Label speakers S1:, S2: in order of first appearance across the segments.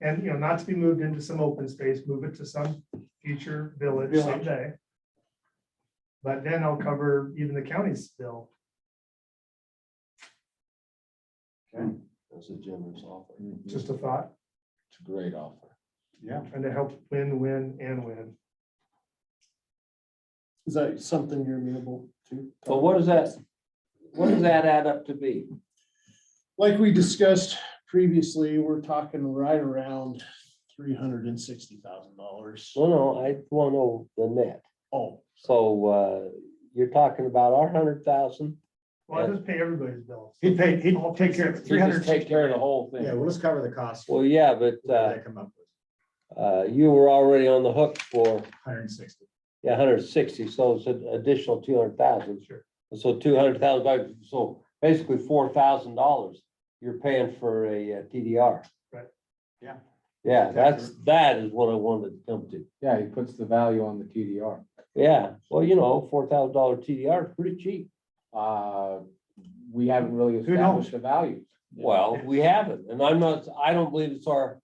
S1: And, you know, not to be moved into some open space, move it to some future village
S2: Village.
S1: someday. But then I'll cover even the county's bill.
S3: That's a generous offer. It's
S1: Just a thought,
S3: a great offer.
S2: Yeah.
S1: trying to help win, win and win.
S2: Is that something you're amenable to?
S4: But what does that, what does that add up to be?
S2: Like we discussed previously, we're talking right around three hundred and sixty thousand dollars.
S4: Well, no, I want to know the net.
S2: Oh,
S4: So uh, you're talking about our hundred thousand.
S1: Well, I just pay everybody's bills.
S5: He'd pay, he'd take care of three hundred.
S3: Take care of the whole
S5: Yeah,
S3: thing.
S5: we'll just cover the cost.
S4: Well, yeah, but
S5: What
S4: uh,
S5: did I come up with?
S4: uh, you were already on the hook for
S5: Hundred and sixty.
S4: a hundred sixty, so it's an additional two hundred thousand.
S1: Sure.
S4: So two hundred thousand, so basically four thousand dollars you're paying for a uh, TDR.
S1: Right.
S5: Yeah.
S4: Yeah, that's, that is what I wanted to come to.
S3: Yeah, he puts the value on the TDR.
S4: Yeah, well, you know, four thousand dollar TDR is pretty cheap.
S3: Uh, we haven't really
S5: Who knows?
S3: established a value.
S4: Well, we haven't, and I'm not, I don't believe it's our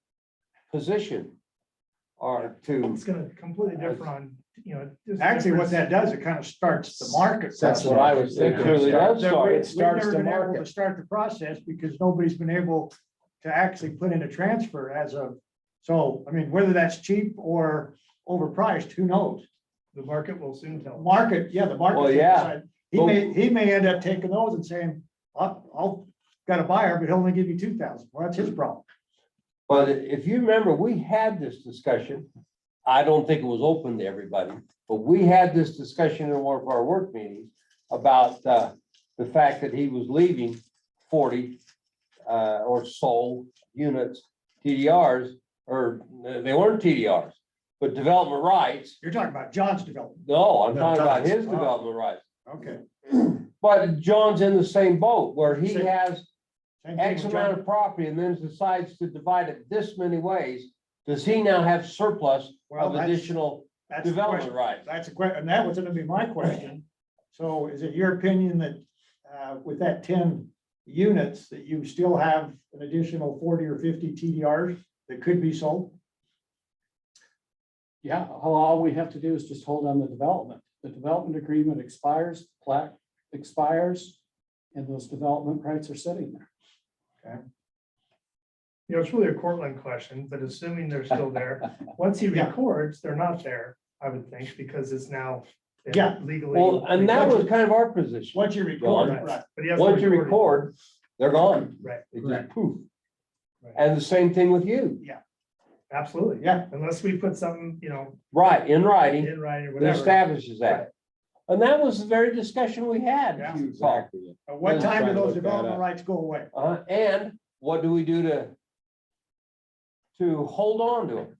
S4: position or to,
S1: It's gonna completely differ on, you know. just
S5: Actually, what
S1: difference.
S5: that does, it kind of starts the market.
S3: That's what I was
S4: it
S3: thinking.
S4: clearly does
S5: That we-
S4: start.
S5: We've
S3: It starts
S5: never
S3: the
S5: been able to
S3: market.
S5: start the process because nobody's been able to actually put in a transfer as of, so, I mean, whether that's cheap or overpriced, who knows?
S1: The market will soon tell.
S5: Market, yeah, the market.
S4: Well, yeah.
S5: He may, he may end up taking those and saying, I'll, I'll, got a buyer, but he'll only give you two thousand. Well, that's his problem.
S4: But if you remember, we had this discussion, I don't think it was open to everybody, but we had this discussion in one of our work meetings about, uh, the fact that he was leaving forty, uh, or so units, TDRs, or uh, they weren't TDRs, but development rights,
S5: You're talking about John's development.
S4: no, I'm
S5: No,
S4: talking about
S5: John's.
S4: his
S5: Oh.
S4: development rights.
S5: Okay.
S4: But John's in the same boat where he
S5: Same-
S4: has X amount of property and then decides to divide it this many ways. Does he now have surplus
S5: Well,
S4: of
S5: that's-
S4: additional
S5: That's the
S4: development
S5: question.
S4: rights?
S5: That's a question, and that was gonna be my question. So is it your opinion that, uh, with that ten units, that you still have an additional forty or fifty TDRs that could be sold?
S6: Yeah, all, all we have to do is just hold on the development. The development agreement expires, plat expires, and those development rights are sitting there.
S1: You know, it's really a Cortland question, but assuming they're still there, once he
S5: Yeah.
S1: records, they're not there, I would think, because it's now. been
S5: Yeah.
S1: Legally.
S4: Well, and that was kind of our position.
S5: Once you record,
S4: Gone.
S5: right,
S1: But he has to
S4: Once you
S1: record it.
S4: record, they're gone.
S1: Right.
S4: They just poof.
S5: Right.
S4: And the same thing with you.
S1: Absolutely.
S5: Yeah.
S1: Unless we put something, you know,
S4: Right, in writing,
S1: in writing or
S4: that
S1: whatever.
S4: establishes that. And that was the very discussion we had. if you recall.
S3: Exactly.
S5: at what
S4: Yeah,
S5: time
S3: try
S5: do
S3: to
S5: those
S3: look that
S5: development
S3: up.
S5: rights go away?
S4: Uh, and what do we do to? To hold on to them?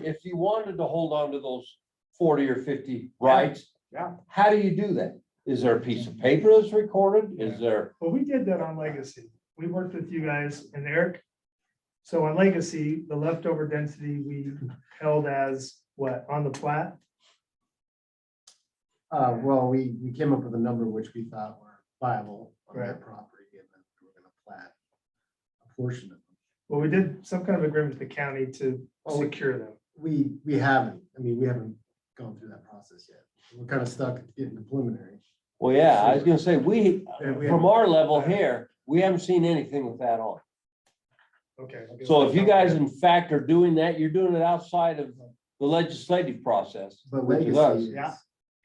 S4: If you wanted to hold on to those forty or fifty rights.
S5: Yeah.
S4: How do you do that? Is there a piece of paper that's recorded? Is there,
S1: Well, we did that on Legacy. We worked with you guys and Eric. So on Legacy, the leftover density we held as what, on the plat?
S2: Uh, well, we, we came up with a number which we thought were viable on that
S1: Correct.
S2: property, and then we're gonna plat a portion of them.
S1: Well, we did some kind of agreement with the county to
S2: Oh, we-
S1: secure them.
S2: We, we haven't, I mean, we haven't gone through that process yet. We're kind of stuck in the preliminary.
S4: well, yeah, I was gonna say, we,
S2: Yeah, we
S4: from our level here, we haven't seen anything with that on.
S1: Okay.
S4: So if you guys in fact are doing that, you're doing it outside of the legislative process.
S2: But
S4: Which is us.
S2: legacy is.
S5: Yeah.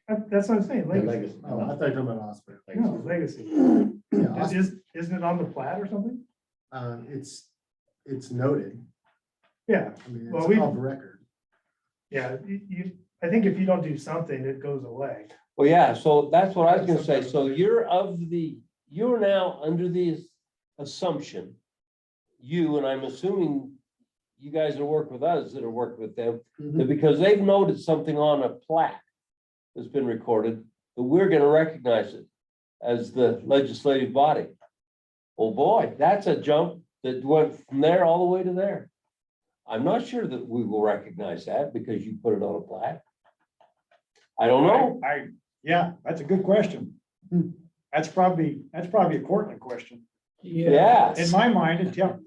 S1: That- That's what I'm saying, Legacy.
S2: Legacy. Oh, I thought you were talking about Osprey.
S1: No, Legacy.
S2: Yeah, Os-
S1: Is, isn't it on the plat or something?
S2: uh, it's, it's noted.
S1: Yeah,
S2: I mean,
S1: Well, we-
S2: it's off record.
S1: yeah. You, you- I think if you don't do something, it goes away.
S4: Well, yeah, so that's what I was gonna say. So you're of the, you're now under the assumption. You, and I'm assuming you guys that work with us that have worked with them, that because they've noted something on a plaque that's been recorded, that we're gonna recognize it as the legislative body. Oh, boy, that's a jump that went from there all the way to there. I'm not sure that we will recognize that because you put it on a plaque. I don't know.
S5: I, I- yeah, that's a good question.
S2: Hmm.
S5: That's probably, that's probably a Cortland question.
S4: Yeah.
S5: In my mind, until,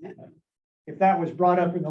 S5: if that was brought up in the